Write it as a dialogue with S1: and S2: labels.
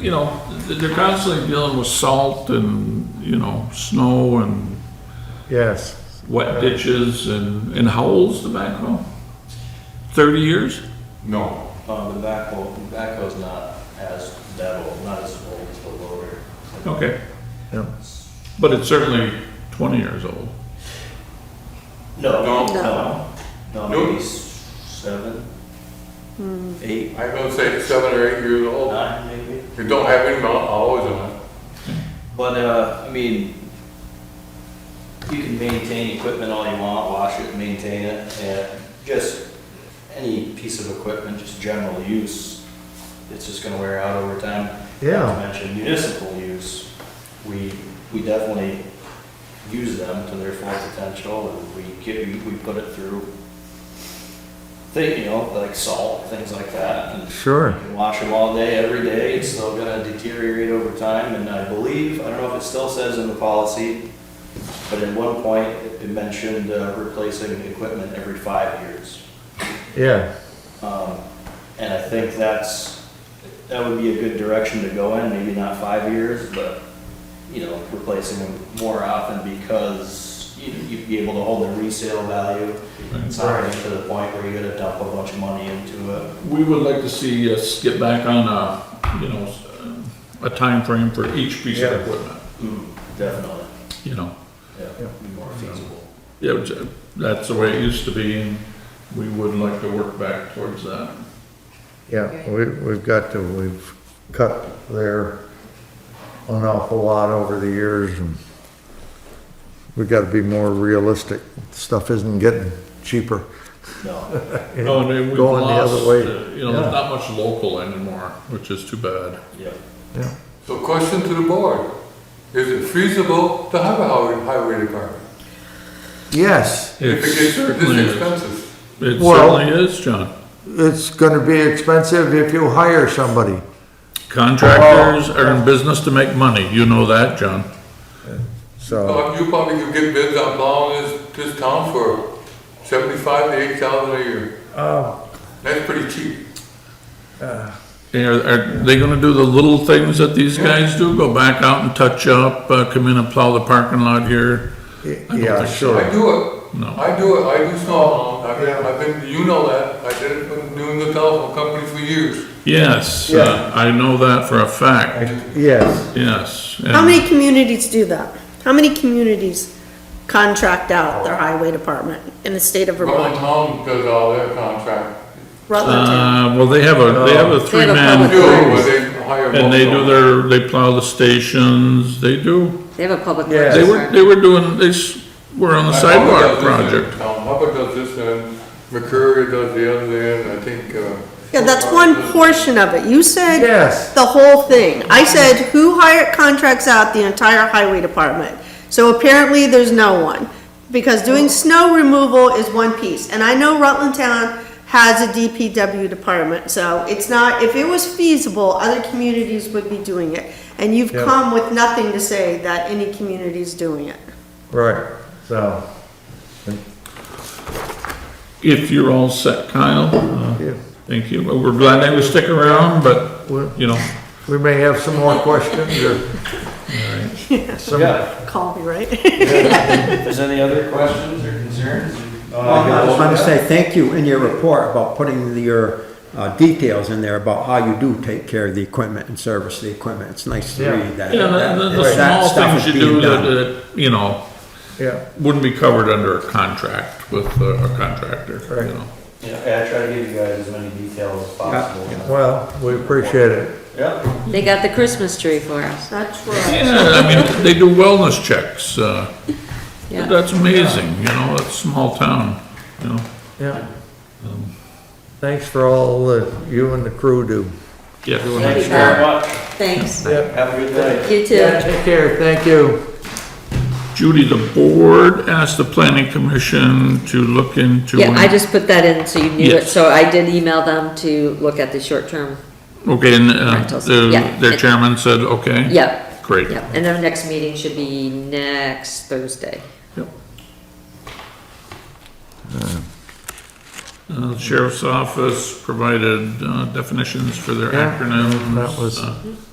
S1: you know, they're constantly dealing with salt and, you know, snow and
S2: Yes.
S1: wet ditches and, and how old's the backhoe? Thirty years?
S3: No,
S4: Um, the backhoe, the backhoe's not as that old, not as old as the loader.
S1: Okay.
S2: Yeah.
S1: But it's certainly twenty years old.
S4: No,
S3: No.
S4: no, no,
S3: No.
S4: maybe s- seven, eight,
S3: I was gonna say seven or eight years old.
S4: nine maybe.
S3: It don't have any mount hours on it.
S4: But, uh, I mean, you can maintain equipment all you want, wash it, maintain it, and just any piece of equipment, just general use, it's just gonna wear out over time. Not to
S2: Yeah,
S4: mention municipal use, we, we definitely use them to their full potential, and we get, we we put it through thing, you know, like salt, things like that, and
S2: sure.
S4: you can wash them all day, every day, it's still gonna deteriorate over time, and I believe, I don't know if it still says in the policy, but at one point, it mentioned uh, replacing the equipment every five years.
S2: Yeah,
S4: Um, And I think that's, that would be a good direction to go in, maybe not five years, but, you know, replacing them more often because you- you'd be able to hold the resale value. It's not already to the point where you're gonna dump a bunch of money into it.
S1: We would like to see us get back on a, you know, a time frame for each piece of
S2: Yeah.
S1: equipment,
S4: Definitely,
S1: you know?
S4: Mm-hmm. yeah, be more feasible.
S1: Yeah, which, uh, that's the way it used to be, and we would like to work back towards that.
S2: yeah, we, we've got to, we've cut there an awful lot over the years and we've got to be more realistic. Stuff isn't getting cheaper.
S4: No,
S1: Oh, and then we've
S2: Going the other
S1: lost,
S2: way.
S1: uh, You know, there's
S2: Yeah.
S1: not much local anymore, which is too bad.
S4: yeah.
S2: Yeah,
S3: So question to the board, is it feasible to have a highway, highway department?
S2: Yes,
S1: It
S3: If it gets
S1: certainly
S3: this
S1: is.
S3: expensive?
S1: It
S2: Well-
S1: certainly is, John.
S2: it's gonna be expensive if you hire somebody.
S1: Contractors are in business to make money, you know that, John.
S2: So,
S3: Uh, You probably could get bids on plowing this, this town for seventy-five to eight thousand a year.
S1: Um,
S3: That's pretty cheap.
S1: Are, are they gonna do the little things that these guys do, go back out and touch up, uh, come in and plow the parking lot here?
S2: y-
S1: don't
S2: yeah,
S1: think so.
S2: sure.
S3: I do it.
S1: No. Oh,
S3: I do it, I do snow plowing. I've been, I've been, you know that, I did it when doing the telephone company for years.
S1: Yes,
S2: Yeah.
S1: uh, I know that for a fact,
S2: Yes,
S1: yes.
S5: How
S1: and-
S5: many communities do that? How many communities contract out their highway department in the state of
S3: Rutland
S5: Vermont?
S3: Town does all their contract.
S5: Rutland.
S1: Uh, well, they have a, they have
S2: Oh.
S1: a three-man
S6: public
S3: Do,
S1: crew,
S3: but they hire.
S1: and they do
S3: multiple.
S1: their, they plow the stations, they do.
S6: They have a public
S2: Yeah.
S6: works
S1: They were, they
S6: department.
S1: were doing, they s- were on the
S3: Uh,
S1: sidewalk
S3: Hubbard does this
S1: project.
S3: and, um, Hubbard does this and McCurry does the other end, I think, uh.
S5: Yeah, that's one portion of it. You said
S2: yes,
S5: the whole thing. I said, who hire, contracts out the entire highway department? So apparently, there's no one, because doing snow removal is one piece. And I know Rutland Town has a DPW department, so it's not, if it was feasible, other communities would be doing it. And you've
S2: Yeah.
S5: come with nothing to say that any community's doing it.
S2: right, so,
S1: If you're all set, Kyle, uh,
S2: yeah.
S1: thank you. We're glad they would stick around, but,
S2: Well-
S1: you know,
S2: we may have some more questions or some
S4: Yeah,
S5: Call me, right?
S4: if there's any other questions or concerns? uh,
S7: I just want to
S4: yeah.
S7: say thank you in your report about putting your uh, details in there about how you do take care of the equipment and service the equipment. It's nice to
S2: Yeah.
S7: read that.
S1: yeah,
S7: that-
S1: the, the- the
S7: that
S1: small
S7: stuff is
S1: things you
S7: being
S1: do that,
S7: done.
S1: that, you know,
S2: Yeah,
S1: wouldn't be covered under a contract with uh, a contractor, you
S2: Right.
S1: know.
S4: Yeah, I try to give you guys as many details as possible.
S2: well, we appreciate it.
S4: Yeah.
S6: They got the Christmas tree for us.
S5: That's right.
S1: Yeah, I mean, they do wellness checks, uh,
S6: Yeah.
S1: that's amazing, you know, it's a small town, you know.
S2: Yeah. Thanks for all that you and the crew do.
S1: Yeah.
S6: Thank you
S4: Very much.
S6: Thanks.
S4: Have a good night.
S6: You too.
S2: Yeah, take care, thank you.
S1: Judy, the board asked the planning commission to look into.
S6: Yeah, I just put that in so you knew it.
S1: Yes.
S6: So I did email them to look at the short-term.
S1: Okay, and, uh,
S6: Rentals,
S1: the-
S6: yeah.
S1: their chairman said, okay?
S6: Yep,
S1: Great.
S6: yep. And their next meeting should be next Thursday.
S1: Yep. Uh, the Sheriff's Office provided uh, definitions for their
S2: Yeah,
S1: acronyms.
S2: that was-
S1: uh,